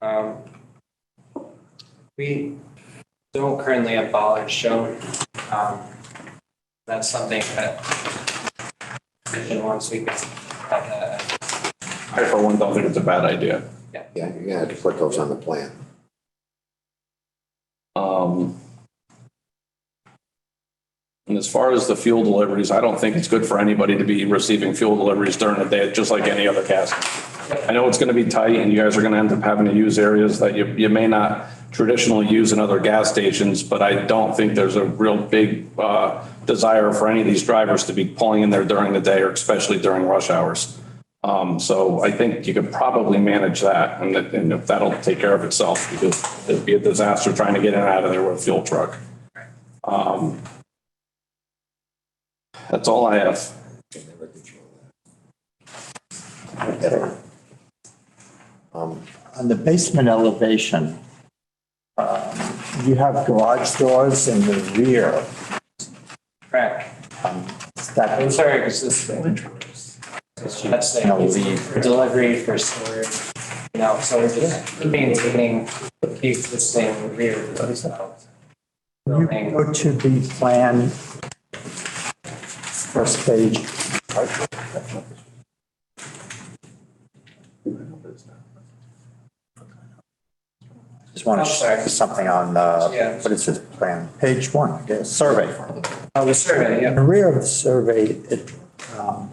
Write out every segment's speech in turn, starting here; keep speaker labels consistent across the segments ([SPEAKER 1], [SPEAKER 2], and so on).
[SPEAKER 1] Um, we don't currently have bollards shown. Um, that's something that, and once we get that, uh,
[SPEAKER 2] I for one don't think it's a bad idea.
[SPEAKER 3] Yeah, you're gonna have to put those on the plan.
[SPEAKER 2] Um, And as far as the fuel deliveries, I don't think it's good for anybody to be receiving fuel deliveries during the day, just like any other gas. I know it's gonna be tight and you guys are gonna end up having to use areas that you, you may not traditionally use in other gas stations, but I don't think there's a real big, uh, desire for any of these drivers to be pulling in there during the day or especially during rush hours. Um, so I think you could probably manage that and that, and if that'll take care of itself because it'd be a disaster trying to get in and out of there with a fuel truck. Um, That's all I have.
[SPEAKER 3] Um,
[SPEAKER 4] On the basement elevation, um, you have garage doors in the rear.
[SPEAKER 1] crack.
[SPEAKER 4] Um, Is that
[SPEAKER 1] I'm sorry, it's this thing. That's
[SPEAKER 4] And I'll
[SPEAKER 1] the,
[SPEAKER 4] leave.
[SPEAKER 1] for delivery, for storage, you know, so we're just maintaining the existing rear. of the
[SPEAKER 4] Can you
[SPEAKER 1] building.
[SPEAKER 4] go to the plan, first page. Just want
[SPEAKER 1] I'm
[SPEAKER 4] to
[SPEAKER 1] sorry.
[SPEAKER 4] say something on, uh,
[SPEAKER 1] Yeah.
[SPEAKER 4] what is this plan? Page one, I guess, survey.
[SPEAKER 1] Oh, the survey,
[SPEAKER 4] In
[SPEAKER 1] yeah.
[SPEAKER 4] the rear of the survey, it, um,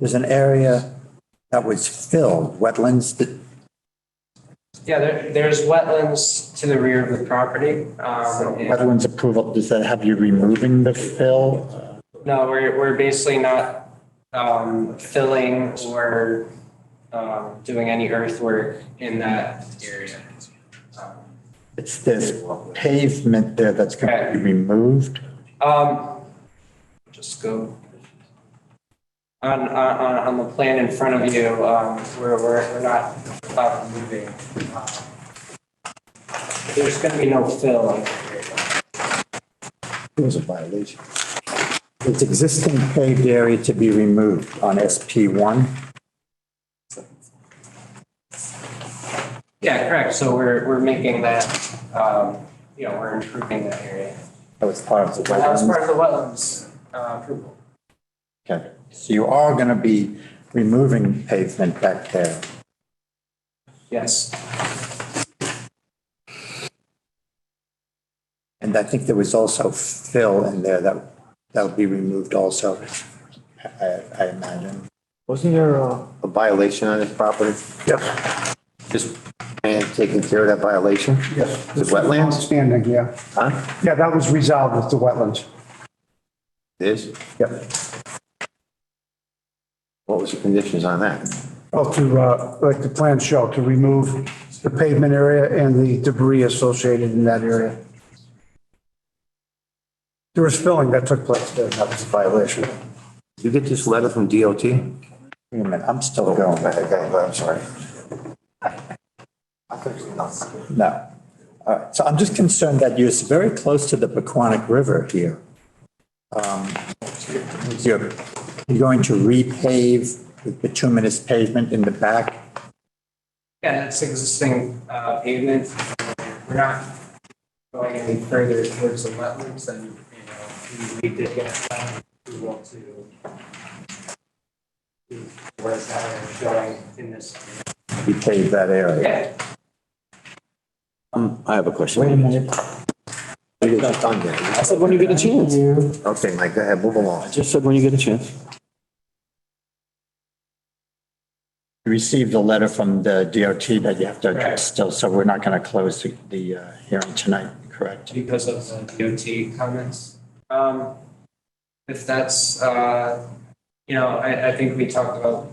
[SPEAKER 4] there's an area that was filled, wetlands, that-
[SPEAKER 1] Yeah, there, there's wetlands to the rear of the property. Um, and-
[SPEAKER 4] uh, wetlands approval, does that have you removing the fill?
[SPEAKER 1] No, we're, we're basically not um, filling or um, doing any earthwork in that area.
[SPEAKER 4] It's this pavement there that's going to be removed.
[SPEAKER 1] Um, Just go. On, on, on on the plan in front of you, um, we're, we're we're not about moving. um, There's going to be no fill. in that area.
[SPEAKER 3] It was a violation.
[SPEAKER 4] It's existing paved area to be removed on SP one.
[SPEAKER 1] Yeah, correct. So we're, we're making that, um, you know, we're improving that area.
[SPEAKER 4] That was part of the
[SPEAKER 1] That was part of
[SPEAKER 4] wetlands.
[SPEAKER 1] the wetlands uh, approval.
[SPEAKER 4] Okay, so you are going to be removing pavement back there.
[SPEAKER 1] Yes.
[SPEAKER 4] And I think there was also fill in there that, that'll be removed also, I, I imagine.
[SPEAKER 3] Wasn't there a? A violation on this property?
[SPEAKER 5] Yes,
[SPEAKER 3] Just. And taking care of that violation?
[SPEAKER 5] yes.
[SPEAKER 3] The wetlands?
[SPEAKER 5] Standing, yeah.
[SPEAKER 3] Huh?
[SPEAKER 5] Yeah, that was resolved with the wetlands.
[SPEAKER 3] This?
[SPEAKER 5] Yep.
[SPEAKER 3] What was the conditions on that?
[SPEAKER 5] Well, to, uh, like the plan show, to remove the pavement area and the debris associated in that area. There was filling that took place there, that was a violation.
[SPEAKER 3] Did you get this letter from DOT?
[SPEAKER 4] Wait a minute, I'm still going.
[SPEAKER 3] Oh. I'm sorry. I thought you were-
[SPEAKER 4] No. All right, so I'm just concerned that you're very close to the Paquonic River here. Um, You're you're going to repave with bituminous pavement in the back?
[SPEAKER 1] Yeah, that's existing uh, pavement. We're not going any further towards the wetlands than, you know, we we did get that approval to to where it's having showing in this.
[SPEAKER 4] Repave that area?
[SPEAKER 1] Yeah,
[SPEAKER 6] Um, I have a
[SPEAKER 4] Wait a
[SPEAKER 6] question.
[SPEAKER 4] minute.
[SPEAKER 3] You were just on there.
[SPEAKER 6] I said, when you get a chance.
[SPEAKER 3] Okay, Mike, go ahead, move along.
[SPEAKER 6] I just said, when you get a chance.
[SPEAKER 4] You Received a letter from the DOT that you have to
[SPEAKER 1] Correct.
[SPEAKER 4] address still, so we're not going to close the- the uh, hearing tonight, correct?
[SPEAKER 1] because of the DOT comments. Um, If that's, uh, you know, I, I think we talked about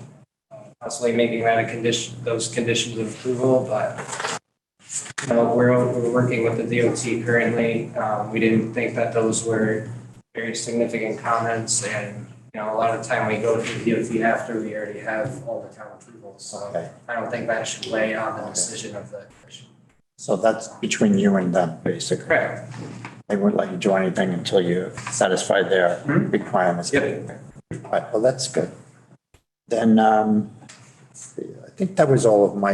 [SPEAKER 1] uh, possibly making that a condition, those conditions of approval, but you know, we're, we're working with the DOT currently. Um, We didn't think that those were very significant comments and, you know, a lot of time we go to the DOT after we already have all the town approvals. So
[SPEAKER 4] Okay.
[SPEAKER 1] I don't think that should weigh on the decision of the commission.
[SPEAKER 4] So that's between you and them, basically.
[SPEAKER 1] Correct.
[SPEAKER 4] They won't let you do anything until you satisfy their
[SPEAKER 1] Mhm.
[SPEAKER 4] requirements.
[SPEAKER 1] Yep.
[SPEAKER 4] All right, well, that's good. Then, um, let's see, I think that was all of my